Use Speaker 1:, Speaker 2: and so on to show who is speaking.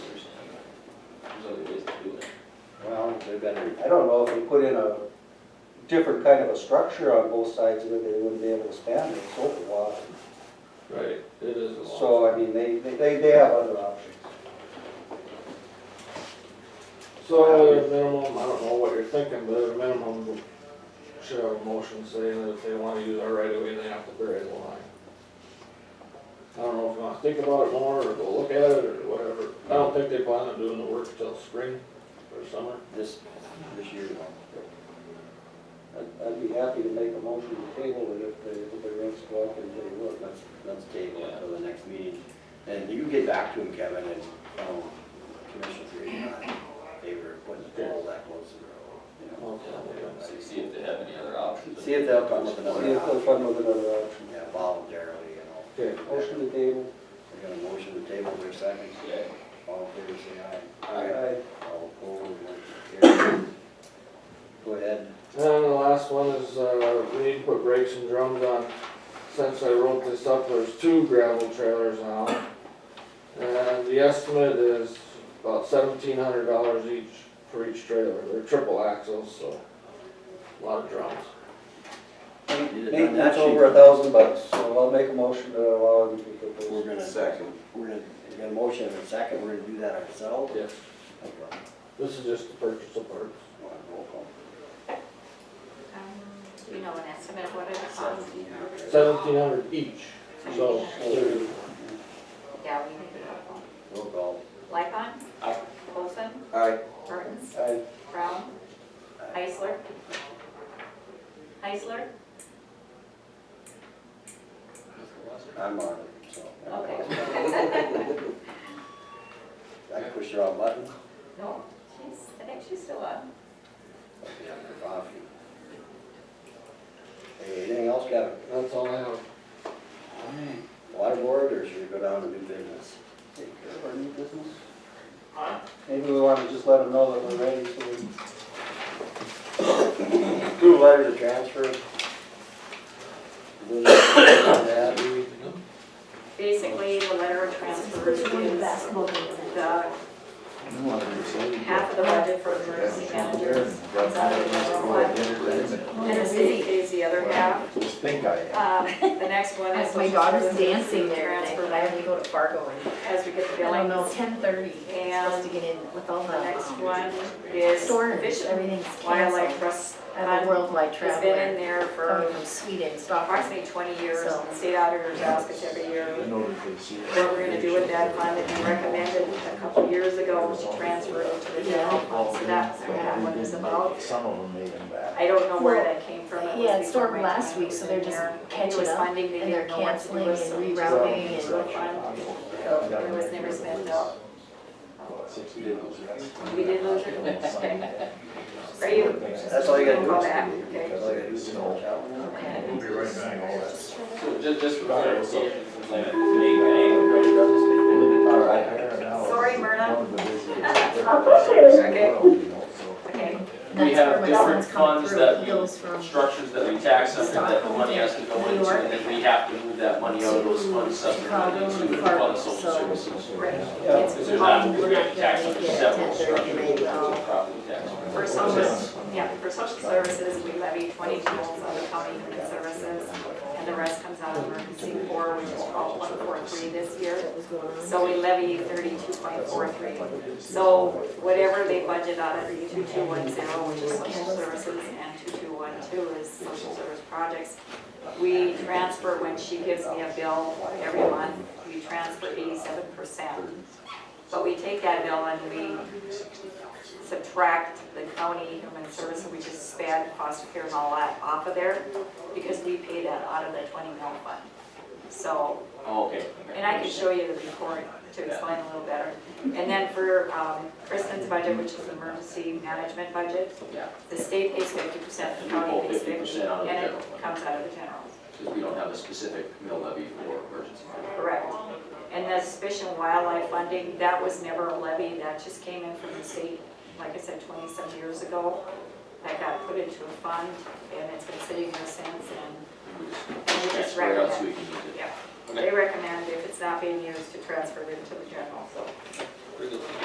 Speaker 1: been, I don't know if you put in a different kind of a structure on both sides of it, they wouldn't be able to span it, so wide.
Speaker 2: Right, it is a lot.
Speaker 1: So, I mean, they, they- they, they have other options.
Speaker 3: So at a minimum, I don't know what you're thinking, but at a minimum, we should have a motion saying that if they wanna use our right of way, they have to bury the line. I don't know if you wanna think about it more, or go look at it, or whatever. I don't think they plan on doing the work till spring or summer.
Speaker 1: This, this year. I'd, I'd be happy to make a motion to table it if the, if the rents go up and they would,
Speaker 4: Let's, let's table it till the next meeting. And you can get back to him, Kevin, and, um, Commissioner Green, uh, they were putting the pole that close to the road,
Speaker 3: Okay.
Speaker 4: you know.
Speaker 5: See if they have any other options.
Speaker 4: See if they'll come with another
Speaker 1: see if they'll
Speaker 4: option,
Speaker 1: come with another option.
Speaker 4: yeah, voluntarily, you
Speaker 3: Okay.
Speaker 4: know.
Speaker 1: Motion to table.
Speaker 4: We got a motion to table for a second.
Speaker 5: Yeah.
Speaker 4: All in favor, say
Speaker 1: Aye.
Speaker 4: aye. All opposed, motion carried. Go ahead.
Speaker 3: And then the last one is, uh, we need to put brakes and drums on, since I wrote this up, there's two gravel trailers now. And the estimate is about seventeen hundred dollars each, for each trailer, they're triple axles, so, a lot of drums.
Speaker 1: Maintenance over a thousand bucks, so I'll make a motion to allow them to get
Speaker 4: We're
Speaker 1: those.
Speaker 4: gonna.
Speaker 5: Second.
Speaker 4: We're gonna, we got a motion and a second, we're gonna do that ourselves.
Speaker 3: Yes,
Speaker 4: Okay.
Speaker 3: this is just the purchase of parts.
Speaker 4: Roll call.
Speaker 6: Um, Do you know an estimate of what it costs?
Speaker 4: Seventeen hundred.
Speaker 3: Seventeen hundred each, so, thirty.
Speaker 6: Yeah, we need to know.
Speaker 4: Roll call.
Speaker 6: Lycon?
Speaker 4: Aye.
Speaker 6: Olson?
Speaker 5: Aye.
Speaker 6: Mertens?
Speaker 1: Aye.
Speaker 6: Brown?
Speaker 4: Aye.
Speaker 6: Heisler? Heisler?
Speaker 4: I'm on it, so.
Speaker 6: Okay.
Speaker 4: I can push the wrong button.
Speaker 6: No, she's, I think she's still on.
Speaker 4: Okay, I'm gonna coffee. Hey, anything else, Kevin?
Speaker 3: that's all I have.
Speaker 4: Water board, or should we go down to new business?
Speaker 1: Take care of our new business. Maybe we wanna just let them know that we're ready, so we
Speaker 4: Two letters of transfer. Business, that.
Speaker 6: Basically, the letter of transfer is the half of the budget for emergency managers. comes out of the general fund, And the city pays the other half.
Speaker 7: Pink eye.
Speaker 6: Um, The next one is.
Speaker 8: My daughter's dancing there tonight,
Speaker 6: Transfer
Speaker 8: but I have to go to Fargo and,
Speaker 6: As we get the
Speaker 8: I don't know,
Speaker 6: billings.
Speaker 8: ten thirty,
Speaker 6: And
Speaker 8: supposed to get in with all
Speaker 6: The next
Speaker 8: the um,
Speaker 6: one is
Speaker 8: storms,
Speaker 6: Fish and
Speaker 8: everything's
Speaker 6: Wildlife
Speaker 8: canceled.
Speaker 6: Trust
Speaker 8: I'm a
Speaker 6: Fund.
Speaker 8: worldwide
Speaker 6: It's been in
Speaker 8: traveler,
Speaker 6: there
Speaker 8: coming
Speaker 6: for
Speaker 8: from Sweden, Stockholm.
Speaker 6: approximately twenty years,
Speaker 8: So-
Speaker 6: and state auditors ask us every year
Speaker 7: I know that they see it.
Speaker 6: what we're gonna do with that fund, and we recommended a couple years ago to transfer it to the general fund, so that's what that one is about.
Speaker 7: Some of them made them back.
Speaker 6: I don't know where that came from. was
Speaker 8: Yeah, it
Speaker 6: before
Speaker 8: stormed
Speaker 6: my
Speaker 8: last
Speaker 6: time
Speaker 8: week,
Speaker 6: was
Speaker 8: so
Speaker 6: in
Speaker 8: they're just
Speaker 6: there. It
Speaker 8: catching
Speaker 6: was
Speaker 8: up,
Speaker 6: funding, they
Speaker 8: and they're
Speaker 6: didn't know what to do
Speaker 8: canceling
Speaker 6: with, so
Speaker 8: and
Speaker 6: they just
Speaker 8: rerouting
Speaker 6: put it
Speaker 8: and-
Speaker 6: into a fund. It was never spent out.
Speaker 7: Sixty dollars.
Speaker 6: We did lose it? Okay. Are you?
Speaker 4: That's all you gotta do.
Speaker 6: Call back, okay.
Speaker 4: That's all you gotta do is watch out.
Speaker 6: Okay.
Speaker 7: We'll be right back. All that.
Speaker 5: So just, just for clarification, since I'm at the meeting, I am ready to
Speaker 7: All right, I heard an hour.
Speaker 6: Sorry, Myrna.
Speaker 7: One of the busiest.
Speaker 6: Okay.
Speaker 7: You know, so.
Speaker 6: Okay,
Speaker 5: We
Speaker 8: That's
Speaker 5: have
Speaker 8: where my
Speaker 5: different
Speaker 8: son's coming
Speaker 5: funds
Speaker 8: through.
Speaker 5: that
Speaker 8: He
Speaker 5: we-
Speaker 8: goes from-
Speaker 5: Structures that we tax under that the money has to go into, and then we have to move that money out of those funds subsequently to the fund social services.
Speaker 6: great.
Speaker 1: Yeah.
Speaker 6: It's
Speaker 5: Because there's not, we're gonna have to tax under several structures, which is a property tax.
Speaker 6: For social, yeah, for social services, we levy twenty tolls on the county human services, and the rest comes out of emergency four, which is called one four three this year.
Speaker 8: That was going on.
Speaker 6: So we levy thirty-two point four three. So whatever they budget out of two-two-one-zero, which is social services, and two-two-one-two is social service projects, we transfer, when she gives me a bill every month, we transfer eighty-seven percent. But we take that bill and we subtract the county human service, we just spend foster care and all that off of there, because we pay that out of the twenty mil fund. So
Speaker 5: Oh, Okay.
Speaker 6: and I can show you the report to explain a little better. And then for um, Kristen's budget, which is emergency management budget,
Speaker 5: Yeah,
Speaker 6: the state pays fifty percent, the
Speaker 5: And we
Speaker 6: county
Speaker 5: pull
Speaker 6: pays
Speaker 5: 50%
Speaker 6: fifty,
Speaker 5: out of
Speaker 6: and
Speaker 5: the
Speaker 6: it
Speaker 5: general fund.
Speaker 6: comes out of the general,
Speaker 5: because we don't have a specific mill levy for emergency.
Speaker 6: correct? And the fish and wildlife funding, that was never a levy, that just came in from the state, like I said, twenty-some years ago. That got put into a fund, and it's been sitting there since, and
Speaker 5: We just
Speaker 6: and we just
Speaker 5: Transfer it out so we can
Speaker 6: recommend,
Speaker 5: use it.
Speaker 6: yeah. They recommend if it's not being used to transfer it into the general, so.
Speaker 5: Very good.